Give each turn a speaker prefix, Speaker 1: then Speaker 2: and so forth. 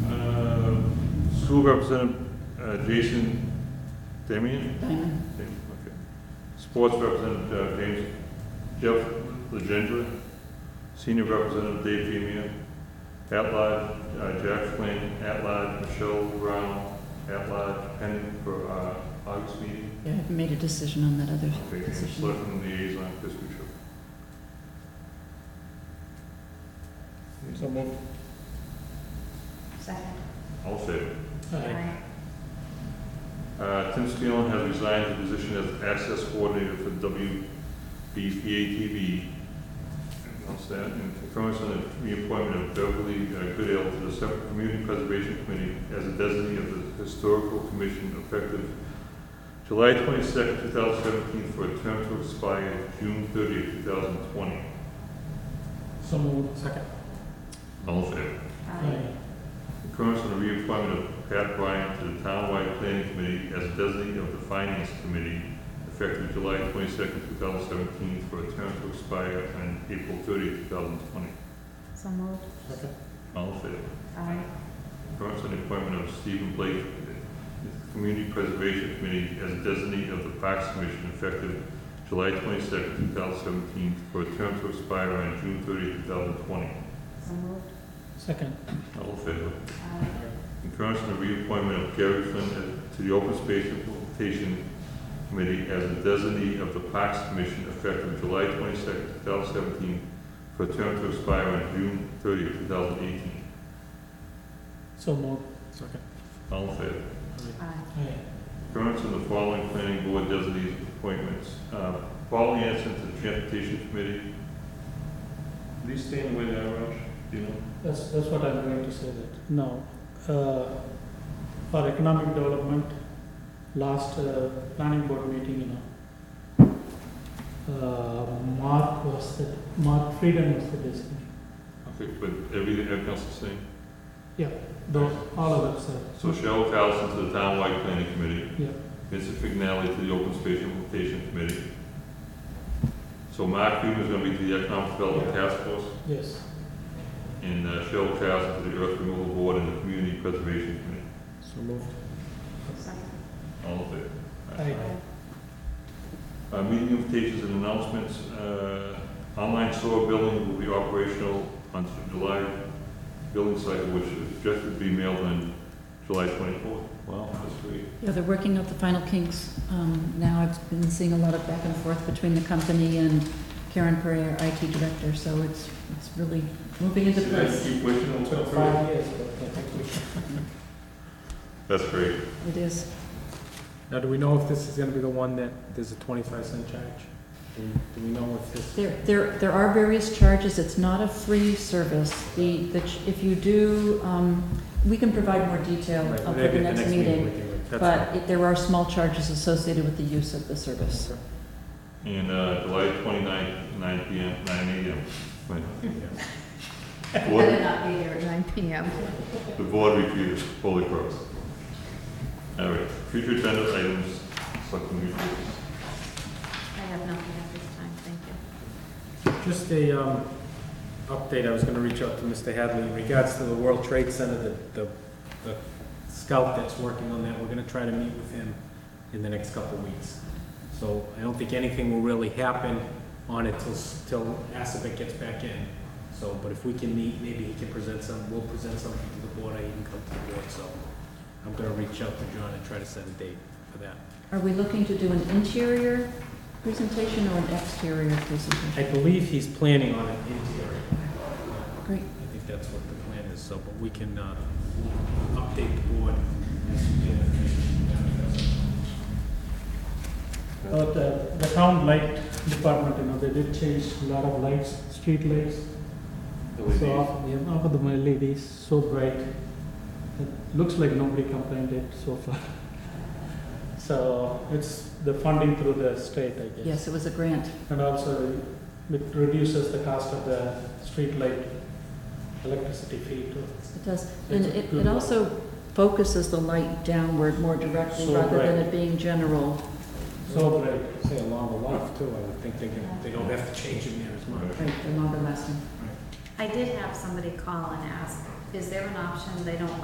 Speaker 1: Uh, School representative, uh, Jason Damian? Damian, Okay. Sports representative, uh, James, Jeff Legendre. Senior representative, Dave Femia. At large, uh, Jack Flynn, at large, Michelle Brown, at large, pending for, uh, August meeting.
Speaker 2: I haven't made a decision on that other
Speaker 1: Okay, and
Speaker 2: position.
Speaker 1: selecting liaison, Chris Bishop.
Speaker 3: So moved.
Speaker 4: Second.
Speaker 1: All in favor?
Speaker 3: Aye.
Speaker 1: Uh, Tim Spielman has resigned his position as access coordinator for WBPA-TV. Announce that, and confirms on the reappointment of Beverly uh, Goodale to the separate Community Preservation Committee as a designee of the Historical Commission effective July twenty-second, two thousand seventeen, for a term to expire June thirtieth, two thousand twenty.
Speaker 3: So moved. Second.
Speaker 1: All in favor?
Speaker 3: Aye.
Speaker 1: Concurrence on the reappointment of Pat Bryant to the Townwide Planning Committee as designee of the Finance Committee effective July twenty-second, two thousand seventeen, for a term to expire on April thirtieth, two thousand twenty.
Speaker 4: So moved.
Speaker 3: Second.
Speaker 1: All in favor?
Speaker 4: Aye.
Speaker 1: Concurrence on the appointment of Stephen Blake to the Community Preservation Committee as designee of the Parks Commission effective July twenty-second, two thousand seventeen, for a term to expire on June thirtieth, two thousand twenty.
Speaker 4: So moved.
Speaker 3: Second.
Speaker 1: All in favor?
Speaker 4: Aye.
Speaker 1: Concurrence on the reappointment of Gary Flynn to the Open Space Implementation Committee as a designee of the Parks Commission effective July twenty-second, two thousand seventeen, for a term to expire on June thirtieth, two thousand eighteen.
Speaker 3: So moved. Second.
Speaker 1: All in favor?
Speaker 4: Aye.
Speaker 3: Aye.
Speaker 1: Concurrence on the following planning board designee appointments. Uh, Paul Anderson to the Transportation Committee. Are these staying the way they are, Raj? Do you know?
Speaker 3: That's, that's what I'm going to say that. Now, uh, for economic development, last uh, planning board meeting, you know, uh, Mark was the, Mark Frieden was the designee.
Speaker 1: Okay, but everything, everything else is the same.
Speaker 3: Those, all of us, sir.
Speaker 1: So Cheryl Carlson to the Townwide Planning Committee.
Speaker 3: Yeah.
Speaker 1: Vincent Fignelli to the Open Space Implementation Committee. So Mark Hume is gonna be to the Economic Development Task Force,
Speaker 3: Yes.
Speaker 1: and uh, Cheryl Carlson to the Earth Removal Board and the Community Preservation Committee.
Speaker 3: So moved.
Speaker 4: Second.
Speaker 1: All in favor?
Speaker 3: Aye.
Speaker 1: Uh, meeting invitations and announcements, uh, online store billing will be operational on July billing cycle, which is just to be mailed on July twenty-fourth. Wow, that's great.
Speaker 2: Yeah, they're working out the final kinks. Um, Now I've been seeing a lot of back and forth between the company and Karen Perry, our IT director, so it's, it's really moving into
Speaker 1: See that?
Speaker 2: place.
Speaker 1: Keep wishing it'll come
Speaker 3: Took
Speaker 1: through.
Speaker 3: five years, but I think we
Speaker 1: That's great.
Speaker 2: It is.
Speaker 5: Now, do we know if this is gonna be the one that there's a twenty-five cent charge? Do do we know if this?
Speaker 2: There, there, there are various charges, it's not a free service. The, the, ch- if you do, um, we can provide more detail
Speaker 5: Right,
Speaker 2: for
Speaker 5: maybe at
Speaker 2: the next meeting,
Speaker 5: we can do it. That's
Speaker 2: but it- there are small charges associated with the use of the service.
Speaker 5: fine.
Speaker 1: And uh, July 29th, nine PM, nine AM. Right.
Speaker 5: Okay. Yeah.
Speaker 1: Board-
Speaker 4: Better not be here at nine PM.
Speaker 1: The board reviews Holy Cross. All right, future agenda items, selectmen reviews.
Speaker 4: I have nothing at this time, thank you.
Speaker 5: Just a, um, update, I was gonna reach out to Mr. Hadley in regards to the World Trade Center, the, the, the scout that's working on that, we're gonna try to meet with him in the next couple of weeks. So I don't think anything will really happen on it till, s- till Assabet gets back in. So, but if we can meet, maybe he can present some, we'll present something to the board, I can come to the board, so I'm gonna reach out to John and try to set a date for that.
Speaker 2: Are we looking to do an interior presentation or an exterior
Speaker 5: I
Speaker 2: presentation?
Speaker 5: believe he's planning on an interior.
Speaker 2: Great.
Speaker 5: I think that's what the plan is, so, but we can, uh, update the board as we get information.
Speaker 3: But uh, the town light department, you know, they did change a lot of lights, street lights. So, yeah, half of the LEDs, so bright. It looks like nobody complained it so far. So it's the funding through the state, I guess.
Speaker 2: Yes, it was a grant.
Speaker 3: And also it reduces the cost of the street light electricity fee too.
Speaker 2: It does, and
Speaker 3: It's a
Speaker 2: it,
Speaker 3: good
Speaker 2: it
Speaker 3: one.
Speaker 2: also focuses the light downward more directly
Speaker 3: So
Speaker 2: rather than
Speaker 3: bright.
Speaker 2: it being general.
Speaker 3: So bright.
Speaker 5: Say along the life too, I would think they can, they don't have to change it near as much.
Speaker 2: Right, the longer lasting.
Speaker 4: I did have somebody call and ask, is there an option they don't